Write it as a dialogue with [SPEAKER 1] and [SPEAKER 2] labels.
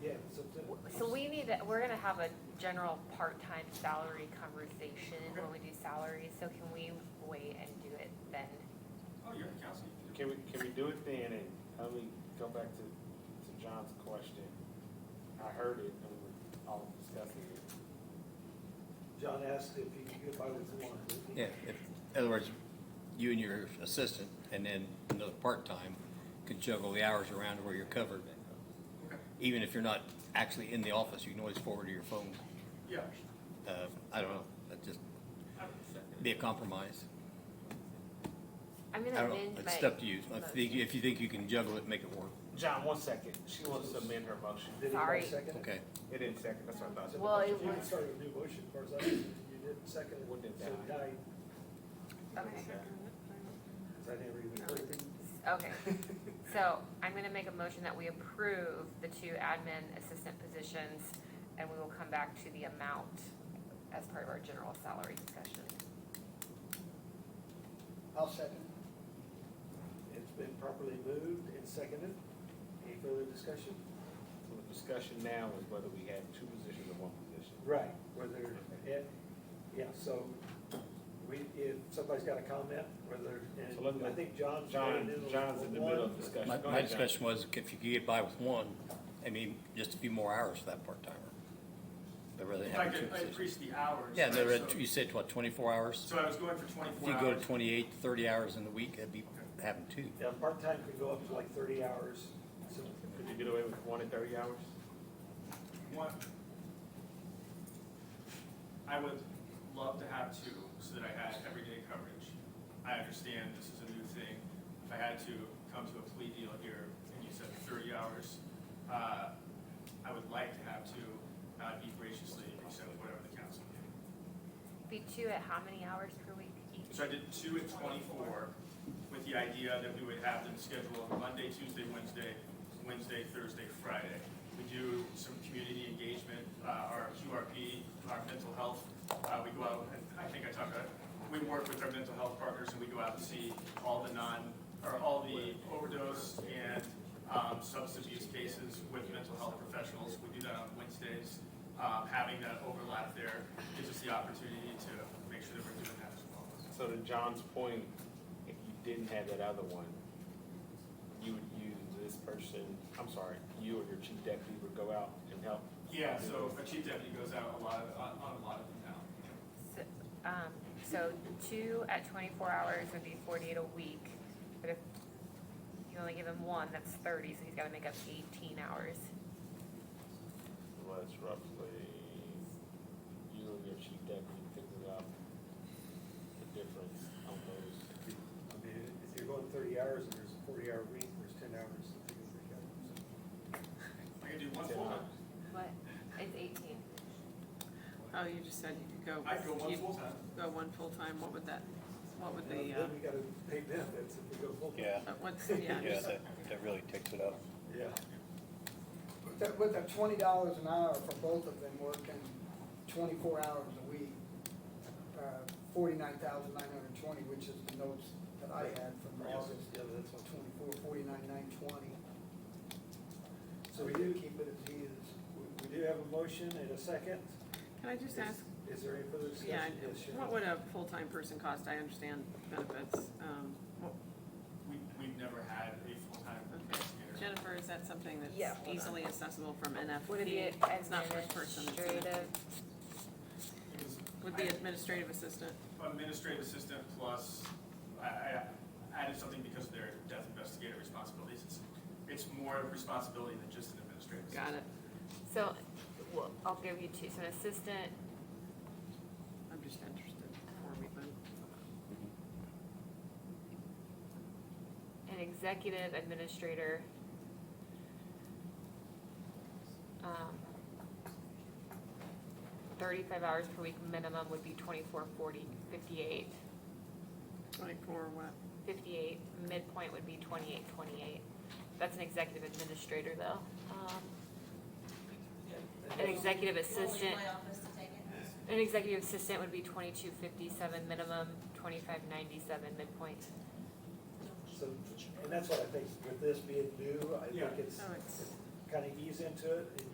[SPEAKER 1] that, we're gonna have a general part-time salary conversation when we do salaries, so can we wait and do it then?
[SPEAKER 2] Oh, you're the council, you do.
[SPEAKER 3] Can we, can we do it then, and let me go back to, to John's question. I heard it, and we we're all discussing it.
[SPEAKER 4] John asked if he could get by with one.
[SPEAKER 5] Yeah, if, in other words, you and your assistant and then another part-time could juggle the hours around where you're covered.
[SPEAKER 2] Okay.
[SPEAKER 5] Even if you're not actually in the office, you can always forward to your phone.
[SPEAKER 2] Yeah.
[SPEAKER 5] Uh, I don't know, that just
[SPEAKER 2] I would second it.
[SPEAKER 5] be a compromise.
[SPEAKER 1] I'm
[SPEAKER 5] I
[SPEAKER 1] gonna
[SPEAKER 5] don't know,
[SPEAKER 1] amend
[SPEAKER 5] it's
[SPEAKER 1] my
[SPEAKER 5] up to you. If you, if you think you can juggle it, make it work,
[SPEAKER 3] John, one second, she wants to amend her motion.
[SPEAKER 4] Did
[SPEAKER 1] Sorry.
[SPEAKER 4] anybody second it?
[SPEAKER 5] okay?
[SPEAKER 3] It didn't second, that's what I thought.
[SPEAKER 1] Well, it
[SPEAKER 4] You
[SPEAKER 1] was-
[SPEAKER 4] can start a new motion, as far as I, know. you didn't second it.
[SPEAKER 3] Wouldn't it
[SPEAKER 4] So
[SPEAKER 3] die?
[SPEAKER 4] died,
[SPEAKER 1] Okay,
[SPEAKER 4] because I never even heard it.
[SPEAKER 1] okay. So I'm gonna make a motion that we approve the two admin assistant positions, and we will come back to the amount as part of our general salary discussion.
[SPEAKER 4] I'll second. It's been properly moved and seconded. Any further discussion?
[SPEAKER 3] So the discussion now is whether we have two positions or one position.
[SPEAKER 4] Right. Whether, it- yeah, so we, if somebody's got a comment, whether,
[SPEAKER 3] So let
[SPEAKER 4] and
[SPEAKER 3] me-
[SPEAKER 4] I think John's.
[SPEAKER 3] John,
[SPEAKER 4] trying to do
[SPEAKER 3] John's in the middle
[SPEAKER 4] one.
[SPEAKER 3] of discussion.
[SPEAKER 5] My,
[SPEAKER 3] Go
[SPEAKER 5] my
[SPEAKER 3] ahead, John.
[SPEAKER 5] discussion was if you could get by with one, I mean, just a few more hours for that part-timer. I'd rather
[SPEAKER 2] If I
[SPEAKER 5] have two
[SPEAKER 2] could, I
[SPEAKER 5] positions.
[SPEAKER 2] increase the hours.
[SPEAKER 5] Yeah, no,
[SPEAKER 2] right,
[SPEAKER 5] but
[SPEAKER 2] so-
[SPEAKER 5] you said what, twenty-four hours?
[SPEAKER 2] So I was going for
[SPEAKER 5] If
[SPEAKER 2] twenty-four
[SPEAKER 5] you go to
[SPEAKER 2] hours.
[SPEAKER 5] 28, 30 hours in the week, that'd be having two.
[SPEAKER 4] Yeah, part-time could go up to like thirty hours, so
[SPEAKER 3] Could you get away with one and thirty hours?
[SPEAKER 2] One. I would love to have two, so that I had everyday coverage. I understand this is a new thing. If I had to come to a plea deal here, and you said thirty hours, uh, I would like to have two, and I'd be graciously accept whatever the council gives.
[SPEAKER 1] Be two at how many hours per week each?
[SPEAKER 2] So I did two at twenty-four with the idea that we would have them scheduled Monday, Tuesday, Wednesday, Wednesday, Thursday, Friday. We do some community engagement, uh, our QRP, our mental health, uh, we go out, and I think I talked about, we work with our mental health partners and we go out and see all the non, or all the overdose and, um, substance abuse cases with mental health professionals. We do that on Wednesdays. Um, having that overlap there gives us the opportunity to make sure that we're doing that as well.
[SPEAKER 3] So to John's point, if you didn't have that other one, you would use this person, I'm sorry, you or your chief deputy would go out and help?
[SPEAKER 2] Yeah, so a chief deputy goes out a lot, on, on a lot of them now.
[SPEAKER 1] So, Um, so two at twenty-four hours would be forty-eight a week, but if you only give him one, that's thirty, so he's gotta make up eighteen hours.
[SPEAKER 3] Well, that's roughly, you and your chief deputy figure out the difference on those.
[SPEAKER 4] I mean, if you're going thirty hours and there's a forty-hour week, there's ten hours to take a break out.
[SPEAKER 2] I can do one
[SPEAKER 3] Ten
[SPEAKER 2] full time.
[SPEAKER 3] hours.
[SPEAKER 1] What? It's eighteen.
[SPEAKER 6] Oh, you just said you could go.
[SPEAKER 2] I'd go one
[SPEAKER 6] you'd
[SPEAKER 2] full time.
[SPEAKER 6] Go one full-time, what would that, what would
[SPEAKER 4] And
[SPEAKER 6] the, uh,
[SPEAKER 4] Then we gotta pay benefits if we go full.
[SPEAKER 5] Yeah,
[SPEAKER 6] uh, what's, yeah, just-
[SPEAKER 5] that, that really takes it up.
[SPEAKER 4] Yeah.
[SPEAKER 7] With that, with that twenty dollars an hour for both of them working twenty-four hours a week, uh, forty-nine thousand nine hundred twenty, which is the notes that I had from
[SPEAKER 4] Yes.
[SPEAKER 7] August,
[SPEAKER 4] Yeah, that's what-
[SPEAKER 7] twenty-four, forty-nine, nine twenty.
[SPEAKER 4] So we do keep it as is. We, we do have a motion and a second.
[SPEAKER 6] can I just
[SPEAKER 4] Is-
[SPEAKER 6] ask,
[SPEAKER 4] Is there any further
[SPEAKER 6] yeah,
[SPEAKER 4] discussion? Yes, Sharon.
[SPEAKER 6] what would a full-time person cost? I understand benefits. Um, what-
[SPEAKER 2] We, we've never had a full time investigator.
[SPEAKER 6] Jennifer, is that something
[SPEAKER 1] Yeah, hold
[SPEAKER 6] that's
[SPEAKER 1] on.
[SPEAKER 6] easily accessible from NFP?
[SPEAKER 1] Would it be
[SPEAKER 6] It's not first person. it's an-
[SPEAKER 1] administrative?
[SPEAKER 2] It was
[SPEAKER 6] Would be administrative assistant,
[SPEAKER 2] administrative assistant plus, I, I added something because of their death investigator responsibilities. It's, it's more responsibility than just an administrative assistant.
[SPEAKER 6] got it,
[SPEAKER 1] So, well, I'll give you two, so an assistant,
[SPEAKER 6] I'm just interested before we vote.
[SPEAKER 1] an executive administrator. Um, Thirty-five hours per week minimum would be twenty-four, forty, fifty-eight.
[SPEAKER 6] Twenty-four, what?
[SPEAKER 1] 58, midpoint would be 28, 28. That's an executive administrator, though. Um, An executive assistant,
[SPEAKER 8] My office to take it.
[SPEAKER 1] an executive assistant would be 2257 minimum, 2597 midpoint.
[SPEAKER 4] So, and that's what I think with this being new, I think
[SPEAKER 2] Yeah.
[SPEAKER 4] it's
[SPEAKER 6] Oh, it's.
[SPEAKER 4] kind of ease into it and